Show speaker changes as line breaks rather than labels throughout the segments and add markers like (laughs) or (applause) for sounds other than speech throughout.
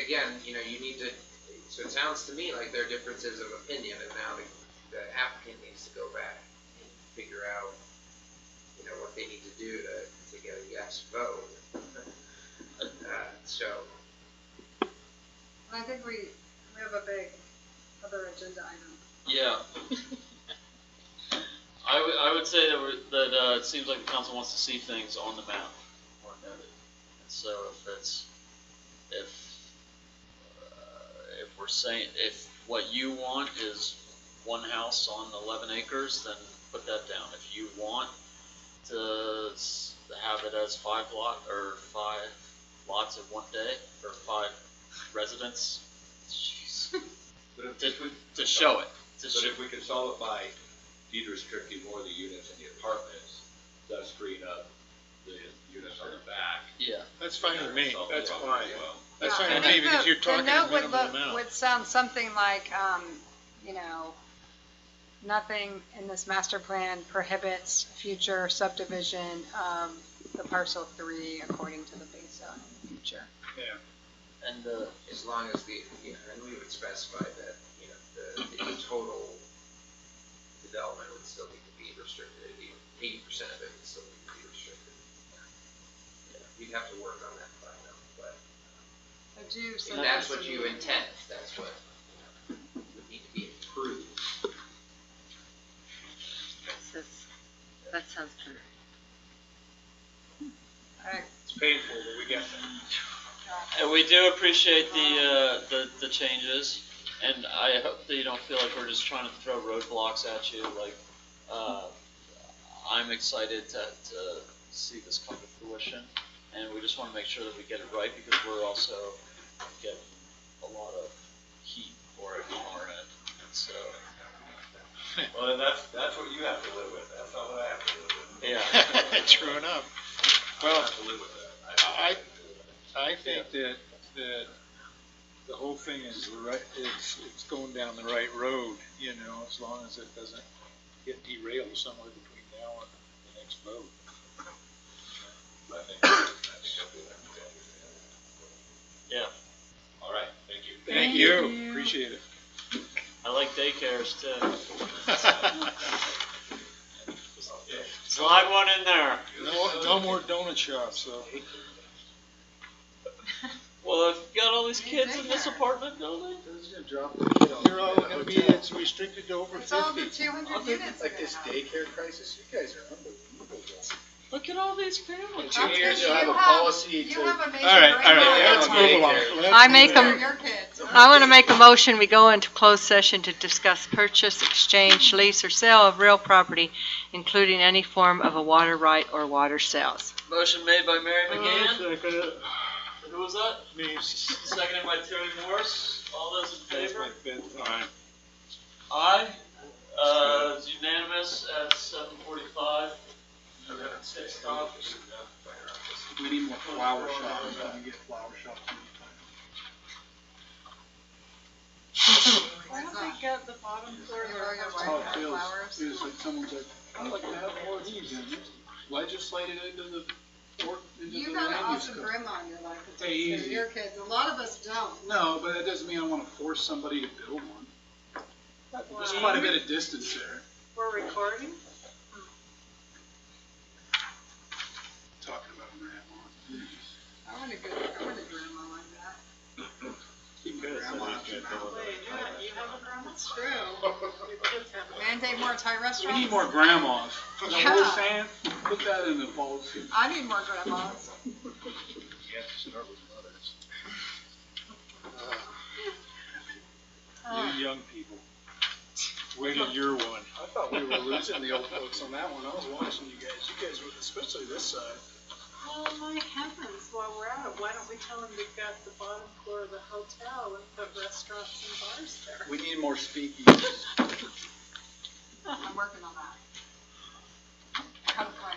again, you know, you need to, so it sounds to me like there are differences of opinion, and now the, the applicant needs to go back and figure out, you know, what they need to do to, to get a yes vote. Uh, so,
I think we, we have a big other agenda item.
Yeah. (laughs) I would, I would say that we're, that, uh, it seems like the council wants to see things on the map more noted. And so if that's, if, uh, if we're saying, if what you want is one house on eleven acres, then put that down. If you want to s- have it as five lot, or five lots in one day, or five residents, jeez,
But if,
to,
if we,
to show it, to
but
show.
if we can solve it by de-restricting more of the units in the apartments, thus freeing up the units on the back.
Yeah.
That's fine with me,
Solve the
that's
problem
fine.
as well.
That's
Yeah,
fine
I
with me,
think
because
the-
you're talking
The
a
note would
minimal
look,
amount.
would sound something like, um, you know, nothing in this master plan prohibits future subdivision of the parcel three according to the base zone in the future.
And uh,
as long as the, you know, and we would specify that, you know, the, the total development would still need to be restricted, eighty percent of it would still need to be restricted. You'd have to work on that by now, but.
I
And
do suggest
that's what
we-
you intend, that's what you know, would need to be improved.
This is, that sounds kind of.
I-
It's painful, but we get that.
and we do appreciate the, uh, the the changes, and I hope that you don't feel like we're just trying to throw roadblocks at you. Like, uh, I'm excited to, to see this come to fruition, and we just want to make sure that we get it right because we're also getting a lot of heat for it on our end. So
Well, then that's, that's what you have to live with, that's not what I have to live with.
yeah,
(laughs) True enough.
I
Well,
have to live with that.
I- I think that, that the whole thing is the right, it's, it's going down the right road, you know, as long as it doesn't get derailed somewhere between now and the next vote.
I think, I think I'll be like that.
yeah.
All right, thank you.
Thank you.
Appreciate
I like daycares too.
it.
Slide one in there.
No, no more donut shops, so.
Well, if you got all these kids in this
Daycare.
apartment building.
You're all gonna be, it's restricted to over
It's all the
fifty.
two hundred units in the house.
daycare crisis, you guys are unbelievable.
Look at all these families.
Two
That's
years,
because
you'll have
you
a policy
You
to-
have a major.
All right, all right,
breakdown
let's
on
move along. Let's
I
move
make
along.
them-
Your your kids.
I want to make a motion, we go into closed session to discuss purchase, exchange, lease, or sale of real property, including any form of a water right or water sales.
Motion made by Mary McGann. Who was that?
Me.
Seconded by Terry Morse. All those in
That's
favor?
my bedtime.
Aye. Uh, it's unanimous at seven forty-five. Six copies.
We need more flower shops, I can get flower shops
Why don't they
get the bottom
Your- your wife
How it
had
feels
flowers.
is that someone's like, I'd like to have more of these in there. Legislated into the, or into the
You got an
land use
awesome
code.
grandma in your life.
Hey,
They're
easy.
your kids. A lot of us don't.
No, but that doesn't mean I wanna force somebody to build one. There's quite a bit of distance there.
We're recording?
Talking about grandma.
I want a good, I want a grandma like that.
Keep my grandma out your mouth.
That's true. Mandate more Thai
We
restaurants.
need more grandmas. You know what
Yeah.
I'm saying? Put that in the policy.
I need more grandmas.
You have to start with mothers.
Uh,
You young people. Wait till you're one. I thought we were losing the old folks on that one. I was watching you guys. You guys were, especially this side.
Well, my heavens, while we're at it, why don't we tell them they've got the bottom floor of the hotel and put restaurants and bars there?
We need more speakeasies.
I'm working on that. Got a plan.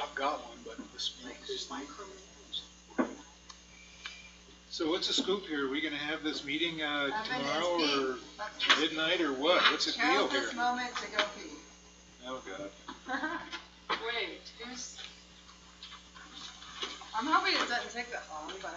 I've got one, but the speakeasies. So what's the scoop here? Are we gonna have this meeting, uh,
I've been
tomorrow or
to pee.
midnight or what? What's the deal
Count
here?
this moment to go pee.
Oh, God.
Wait, who's,
I'm hoping it doesn't take that long, but.